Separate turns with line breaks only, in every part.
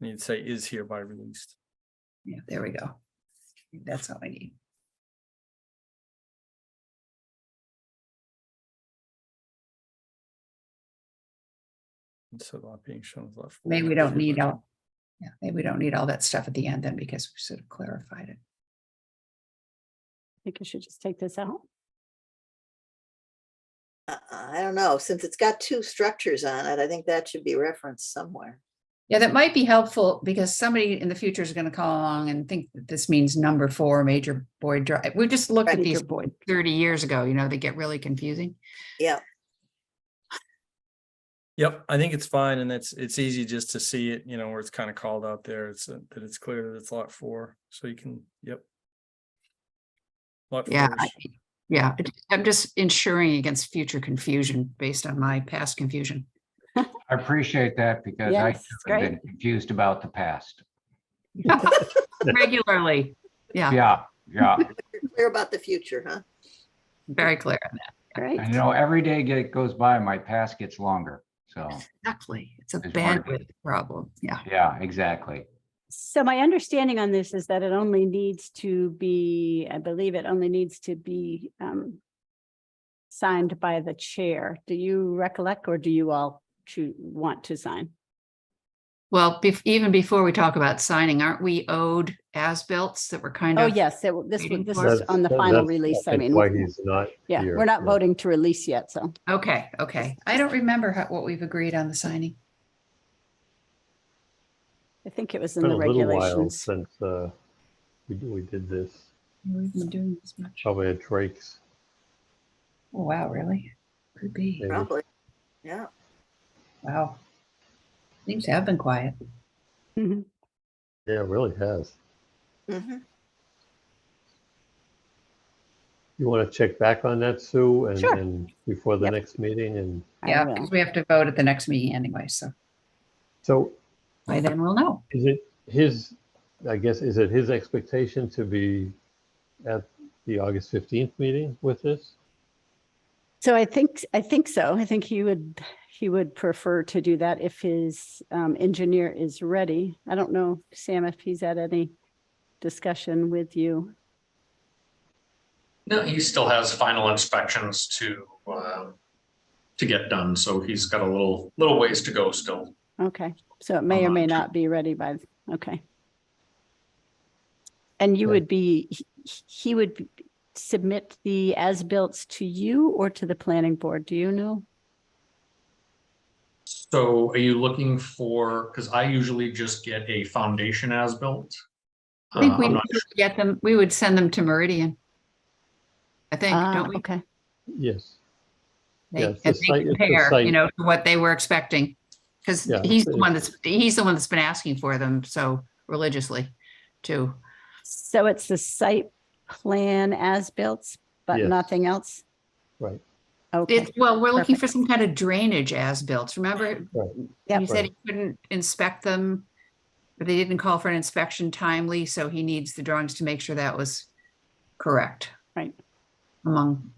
Need to say is hereby released.
Yeah, there we go. That's all I need.
Instead of being shown as left.
Maybe we
forward,
don't need
hereby-
all, yeah, maybe we don't need all that stuff at the end then because we sort of clarified it.
think you should just take this out.
Uh, I don't know, since it's got two structures on it, I think that should be referenced somewhere.
Yeah, that might be helpful because somebody in the future is gonna call along and think that this means number four, major Boyd Drive. We've just looked at
Right.
these
Major Boyd.
thirty years ago, you know, they get really confusing.
Yeah,
Yep, I think it's fine and that's, it's easy just to see it, you know, where it's kind of called out there. It's, uh, that it's clear that it's lot four, so you can, yep. Lot
Yeah,
four
I-
is-
yeah, I just- I'm just ensuring against future confusion based on my past confusion.
I appreciate that because I
Yes,
too
it's
have
great.
been confused about the past.
Regularly, yeah,
Yeah, yeah.
you're clear about the future, huh?
very clear on that,
Great.
And you know, every day get- goes by, my past gets longer. So,
exactly. It's a
There's one-
bandwidth problem, yeah.
yeah, exactly.
So my understanding on this is that it only needs to be, I believe it only needs to be um signed by the chair. Do you recollect or do you all to want to sign?
Well, bef- even before we talk about signing, aren't we owed as-bilts that were kind
Oh,
of?
yes, it w- this was,
Waiting
this
for-
was
That's-
on the
that-
final
that's,
release. I
think,
mean,
Why he's not.
yeah,
here,
we're not
yeah.
voting to release yet, so.
Okay, okay. I don't remember how, what we've agreed on the signing.
I think it was in
Been
the
a little while
regulations.
since uh, we we did this.
We've been doing this much. Oh,
Probably had breaks.
wow, really? Could be.
maybe.
Probably, yeah.
Wow. Things have been quiet.
Mhm.
Yeah, it really has.
Mhm.
You want to check back on that, Sue, and
Sure.
and before the
Yep.
next meeting? And
I
Yeah,
will.
because we have to vote at the next meeting anyway, so
so
by then we'll know.
is it his, I guess, is it his expectation to be at the August 15th meeting with this?
So I think, I think so. I think he would, he would prefer to do that if his um, engineer is ready. I don't know, Sam, if he's had any discussion with you.
No, he still has final inspections to, um, to get done, so he's got a little, little ways to go still.
Okay, so it may or may
Um,
not be ready by, th- okay. And you
Okay.
would be, he- he would b- submit the as-built to you or to the planning board, do you know?
So are you looking for, because I usually just get a foundation as-built.
I think
Uh,
we
I'm
would
not
get them, we would send them to Meridian. I think,
Ah,
don't we?
Okay,
Yes.
They-
Yeah, it's the
And
site-
they
it's the
compare, you
site.
know, to what they were expecting. Because
Yeah,
he's
it's-
the one that's, he's the one that's been asking for them so religiously too.
so it's the site plan as-built, but
Yes.
nothing else?
Right.
Okay,
It's, well, we're looking for some kind of drainage as-built. Remember?
Yep.
He said he couldn't inspect them. But they didn't call for an inspection timely, so he needs the drawings to make sure that was correct.
Right.
Among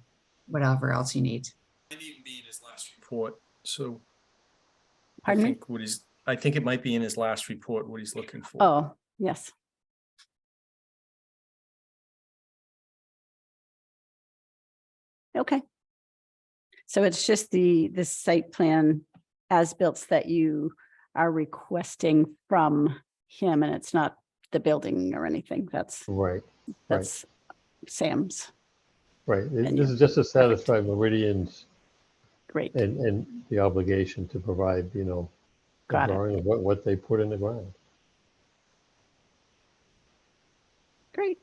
whatever else he needs.
Might even be in his last report, so. I
pardon me?
think What he's, I think it might be in his last report, what he's looking for.
Oh, yes. Okay. So it's just the, the site plan as-built that you are requesting from him and it's not the building or anything. That's,
Right, right.
that's Sam's.
right. It-
And
This
you-
is just to satisfy Meridian's
Great.
And, and the obligation to provide, you know, a
Got it.
drawing of what, what they put in the ground.
Great.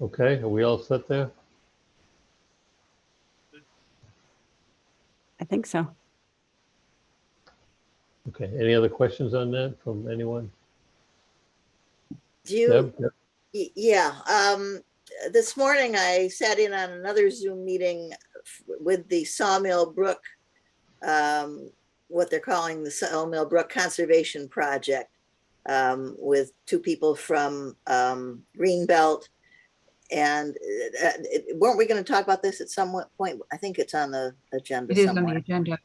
Okay, are we all set there?
I think so.
Okay, any other questions on that from anyone?
Do you,
Deb? Yep.
y- yeah, um, this morning I sat in on another Zoom meeting f- with the Sawmill Brook, um, what they're calling the Sawmill Brook Conservation Project, um, with two people from, um, Greenbelt. And, uh, uh, weren't we gonna talk about this at some point? I think it's on the agenda
It is
somewhere.
on the agenda.